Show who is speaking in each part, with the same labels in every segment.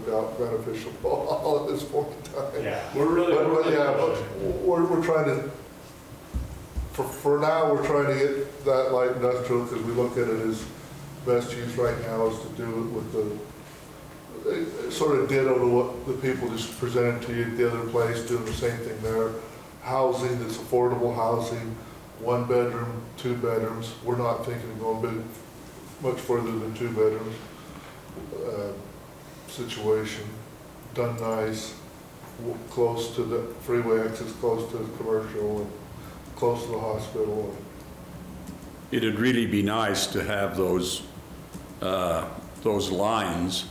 Speaker 1: doubt beneficial at this point in time.
Speaker 2: Yeah, we're really,
Speaker 1: But,
Speaker 2: we're
Speaker 1: but
Speaker 2: really
Speaker 1: yeah, but
Speaker 2: pushing.
Speaker 1: we're, we're trying to, for, for now, we're trying to get that light industrial, because we look at it as best use right now is to do it with the, it- it sort of ditto to what the people just presented to you at the other place, doing the same thing there. Housing that's affordable housing, one bedroom, two bedrooms. We're not thinking of going big, much further than two bedrooms. uh, Situation, done nice, w- close to the freeway exits, close to the commercial, and close to the hospital.
Speaker 3: It'd really be nice to have those, uh, those lines,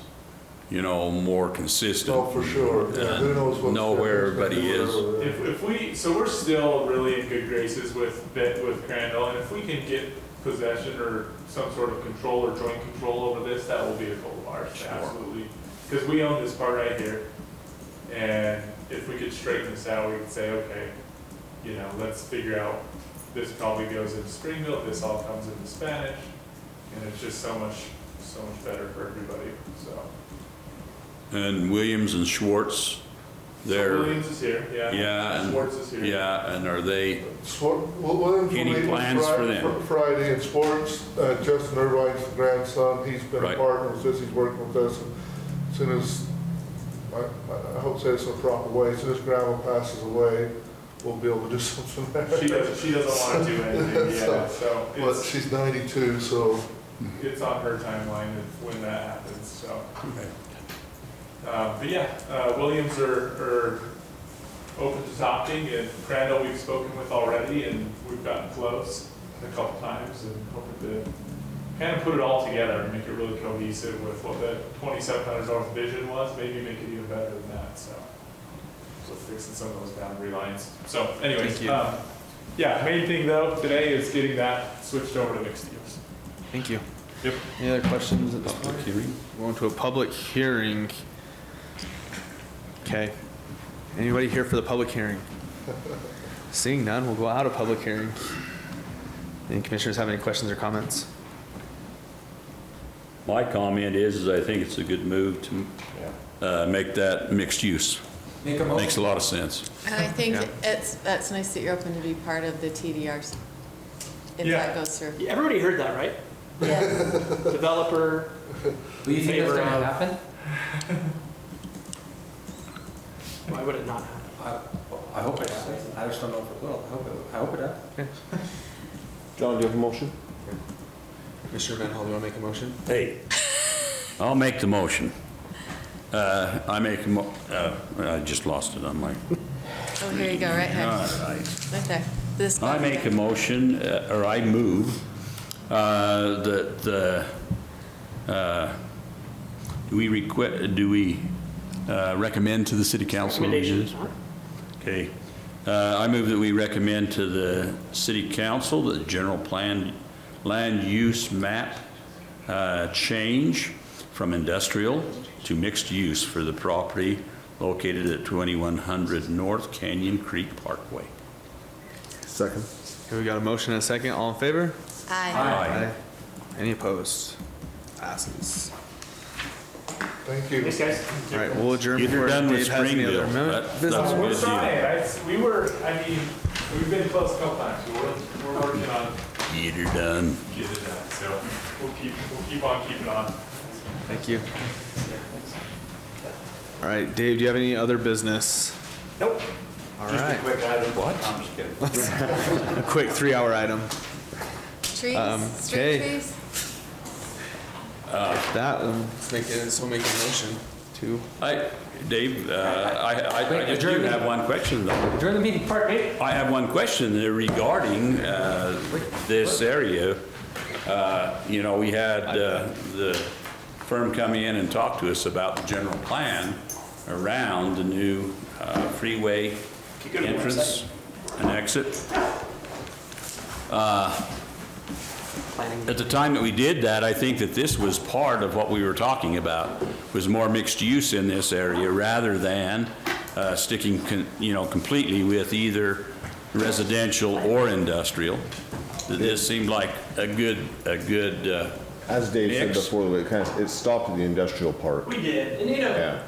Speaker 3: you know, more consistent.
Speaker 1: No, Oh, for sure. Yeah, Who knows what's.
Speaker 3: Know where everybody is.
Speaker 2: If, if we, so we're still really in good graces with, Bit- with Crandall, and if we can get possession or some sort of control or joint control over this, that will be a goal of ours,
Speaker 3: Sure.
Speaker 2: absolutely. Because we own this part right here, and if we could straighten this out, we could say, okay, you know, let's figure out, this probably goes into Springville, this all comes into Spanish, and it's just so much, so much better for everybody, so.
Speaker 3: And Williams and Schwartz, they're,
Speaker 2: Williams is here, yeah.
Speaker 3: yeah, and,
Speaker 2: Schwartz is here.
Speaker 3: yeah, and are they,
Speaker 1: Swar- Well, Williams will
Speaker 3: Any
Speaker 1: meet with
Speaker 3: plans
Speaker 1: Fri-
Speaker 3: for them?
Speaker 1: Fr- Friday in sports, Uh, Justin Irvine's grandson, he's been a
Speaker 3: Right.
Speaker 1: partner with us, he's working with us. and As soon as, I- I I hope to say this in a proper way, as soon as grandma passes away, we'll be able to do something
Speaker 2: She
Speaker 1: there.
Speaker 2: doesn't, she doesn't want to do anything, yeah, so
Speaker 1: But
Speaker 2: it's,
Speaker 1: she's 92, so
Speaker 2: it's on her timeline of when that happens, so. Uh, but yeah, uh, Williams are, are open to adopting, and Crandall we've spoken with already, and we've gotten close a couple times, and hoping to kind of put it all together and make it really cohesive with what the twenty-seven hundred dollar vision was, maybe make it even better than that, so. So fixing some of those boundary lines, so anyways,
Speaker 4: Thank you.
Speaker 2: um, yeah, main thing though, today is getting that switched over to mixed use.
Speaker 4: Thank you.
Speaker 2: Yep.
Speaker 4: Any other questions at this point?
Speaker 3: public hearing?
Speaker 4: Going to a public hearing. Okay. Anybody here for the public hearing? Seeing none, we'll go out of public hearing. Any commissioners have any questions or comments?
Speaker 3: My comment is, is I think it's a good move to uh, make that mixed use.
Speaker 5: Make a
Speaker 3: Makes
Speaker 5: motion.
Speaker 3: a lot of sense.
Speaker 6: And I think
Speaker 4: Yeah.
Speaker 6: it's, that's nice that you're open to be part of the TDRs, if
Speaker 2: Yeah.
Speaker 6: that goes through.
Speaker 7: Everybody heard that, right?
Speaker 6: Yes.
Speaker 7: Developer,
Speaker 5: Do you think that's
Speaker 7: Favor
Speaker 5: gonna
Speaker 7: of-
Speaker 5: happen?
Speaker 7: why would it not happen?
Speaker 5: I, I hope it happens. I just don't know if it will. I hope it, I hope it happens.
Speaker 8: John, do you have a motion?
Speaker 4: Commissioner Manhall, do you want to make a motion?
Speaker 3: Hey, I'll make the motion. Uh, I make, a mo- uh, I just lost it on my,
Speaker 6: Oh, here you go, right here,
Speaker 3: all right.
Speaker 6: right there. This
Speaker 3: I
Speaker 6: one.
Speaker 3: make a motion, uh, or I move, uh, that the, uh, do we requ, do we uh, recommend to the city council?
Speaker 7: Recommendations, huh?
Speaker 3: Okay. Uh, I move that we recommend to the city council the general plan, land use map uh, change from industrial to mixed use for the property located at 2100 North Canyon Creek Parkway.
Speaker 8: Second.
Speaker 4: Okay, we got a motion and a second. All in favor?
Speaker 6: Aye.
Speaker 4: Any opposed? Passes.
Speaker 1: thank you.
Speaker 2: Thanks, guys.
Speaker 4: All right, we'll adjourn
Speaker 3: If
Speaker 4: before
Speaker 3: you're done with
Speaker 4: Dave has any
Speaker 3: Springville,
Speaker 4: other
Speaker 3: that-
Speaker 4: mo-
Speaker 3: that's
Speaker 4: business.
Speaker 3: a
Speaker 2: We're
Speaker 3: good deal.
Speaker 2: trying, I, we were, I mean, we've been close a couple times, but we're, we're working on
Speaker 3: Get her done.
Speaker 2: getting it done, so we'll keep, we'll keep on keeping on.
Speaker 4: Thank you. All right, Dave, do you have any other business?
Speaker 2: Nope.
Speaker 4: All right,
Speaker 8: quick item. What? I'm just kidding.
Speaker 4: a quick three-hour item. Um,
Speaker 6: Trees,
Speaker 4: okay.
Speaker 6: street trees?
Speaker 4: That, um, let's make it, so make a motion to.
Speaker 3: I, Dave, uh, I, I- I just do have one question though.
Speaker 5: During the meeting, pardon me?
Speaker 3: I have one question there regarding uh, this area. Uh, You know, we had uh, the firm come in and talk to us about the general plan around the new uh, freeway entrance and exit. At the time that we did that, I think that this was part of what we were talking about, was more mixed use in this area rather than uh, sticking, con- you know, completely with either residential or industrial. This seemed like a good, a good uh,
Speaker 8: As Dave said
Speaker 3: Mix.
Speaker 8: before, it kind of, it stopped at the industrial park.
Speaker 7: We did, and you know,
Speaker 8: Yeah.